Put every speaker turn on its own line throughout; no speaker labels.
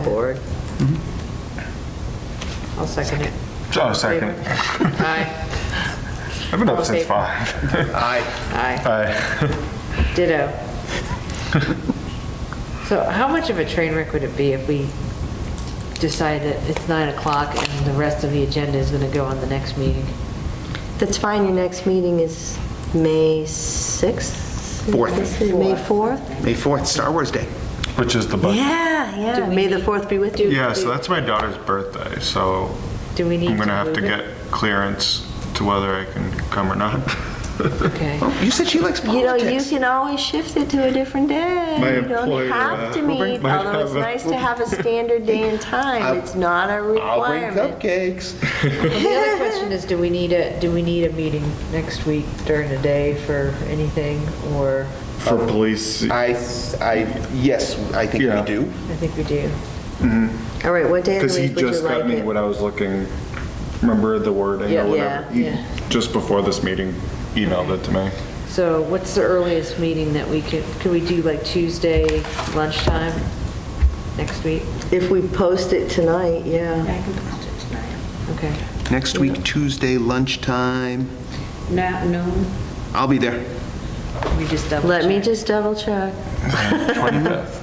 board. I'll second it.
Oh, second.
Aye,
I've been up since
Okay.
five.
Aye.
aye,
Aye.
ditto. So how much of a train wreck would it be if we decide that it's 9 o'clock and the rest of the agenda is going to go on the next meeting?
That's fine, your next meeting is May 6th?
Fourth.
May 4th?
May 4th, Star Wars Day.
Which is the budget.
Yeah, yeah, May the 4th be with you.
Yeah, so that's my daughter's birthday, so
Do we need to
I'm gonna have to
move it?
get clearance to whether I can come or not.
Okay.
You said she likes
You know, you
politics.
can always shift it to a different day.
My
You don't
employer,
have to
uh, will bring-
meet,
might
although it's
have a-
nice to have a standard day and time. It's not a
I'll bring
requirement.
cupcakes.
The other question is, do we need a, do we need a meeting next week during the day for anything, or,
For police,
I, I, yes, I think we
Yeah.
do.
I think we do.
All right, what day of
because
the
he
week would you
just got
like
me
it?
what I was looking, remember the wording
Yeah.
or
Yeah,
whatever? He-
yeah.
Just before this meeting, emailed it to me.
So what's the earliest meeting that we could, could we do like Tuesday lunchtime next week?
If we post it tonight, yeah.
I can post it tonight.
Okay.
Next week, Tuesday lunchtime,
Not noon.
I'll be there.
We just double
Let me
check.
just double check.
25th.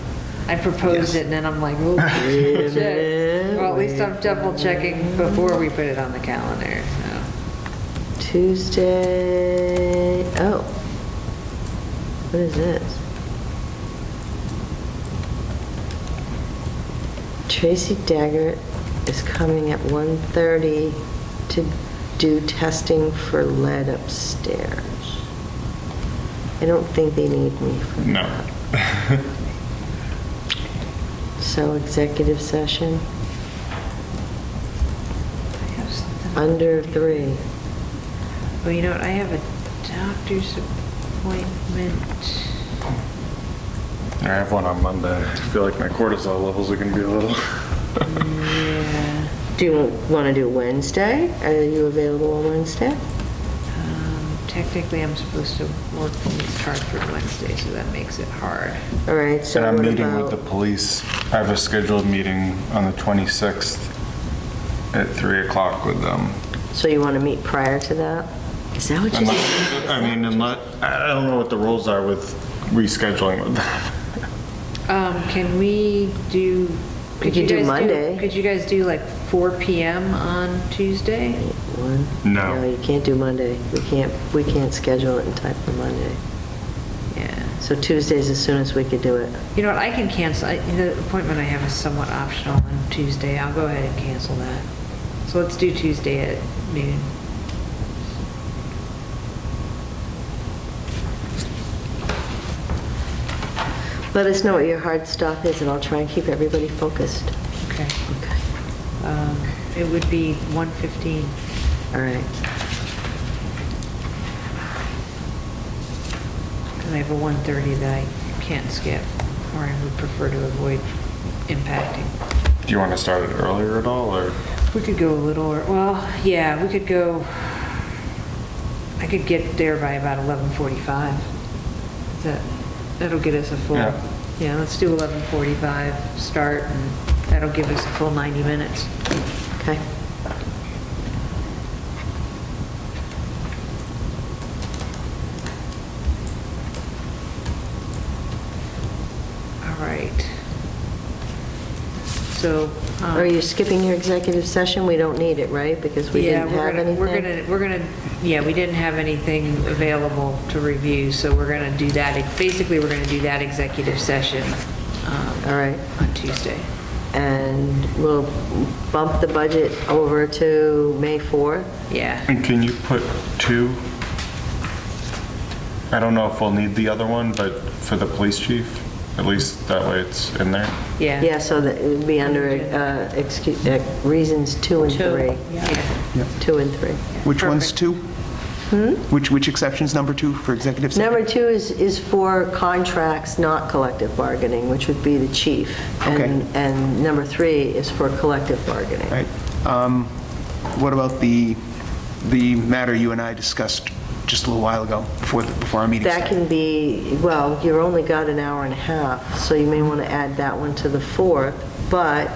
I proposed it and then I'm like, oh, double check. Well, at least I'm double checking before we put it on the calendar, so.
Tuesday, oh. What is this? Tracy Daggett is coming at 1:30 to do testing for lead upstairs. I don't think they need me for that.
No.
So executive session,
I have something.
under three.
Well, you know what, I have a doctor's appointment.
I have one on Monday. I feel like my cortisol levels are gonna be a little.
Yeah.
Do you want to do Wednesday? Are you available on Wednesday?
Um, Technically, I'm supposed to work from Hartford Wednesday, so that makes it hard.
All right, so
And I'm
what
meeting with the
about,
police. I have a scheduled meeting on the 26th at 3 o'clock with them.
so you want to meet prior to that? Is that what you said?
Unless- I mean, unless, I I don't know what the rules are with rescheduling with them.
Um, can we do?
We could
you
do
guys
Monday.
Could you guys do like 4 PM on Tuesday?
One?
No.
No, you can't do Monday. We can't, we can't schedule it in time for Monday.
Yeah.
So Tuesday's as soon as we could do it.
You know what, I can cancel, I- the appointment I have is somewhat optional on Tuesday. I'll go ahead and cancel that. So let's do Tuesday at noon.
Let us know what your hard stop is, and I'll try and keep everybody focused.
Okay.
Okay,
Um, It would be 1:15.
all right.
And I have a 1:30 that I can't skip, or I would prefer to avoid impacting.
Do you want to start it earlier at all, or?
We could go a little, or well, yeah, we could go, I could get there by about 11:45. Is That, that'll get us a full,
Yeah.
yeah, let's do 11:45 start, and that'll give us a full 90 minutes.
Okay.
All right. So. um,
Are you skipping your executive session? We don't need it, right? Because we
Yeah,
didn't
we're
have
gonna,
anything?
we're gonna, we're gonna, yeah, we didn't have anything available to review, so we're gonna do that, basically, we're gonna do that executive session um,
All right.
on Tuesday.
And we'll bump the budget over to May 4th?
Yeah,
And can you put two? I don't know if we'll need the other one, but for the police chief, at least that way it's in there.
yeah.
Yeah, so that it would be under uh, excu- uh, reasons two and
Two,
three.
yeah.
Two and three.
Which one's two? Which, which exception's number two for executive session?
Hmm? Number two is, is for contracts not collective bargaining, which would be the chief.
Okay.
And, and number three is for collective bargaining.
All right. Um, What about the, the matter you and I discussed just a little while ago before, the- before our meeting?
That
started?
can be, well, you've only got an hour and a half, so you may want to add that one to the fourth, but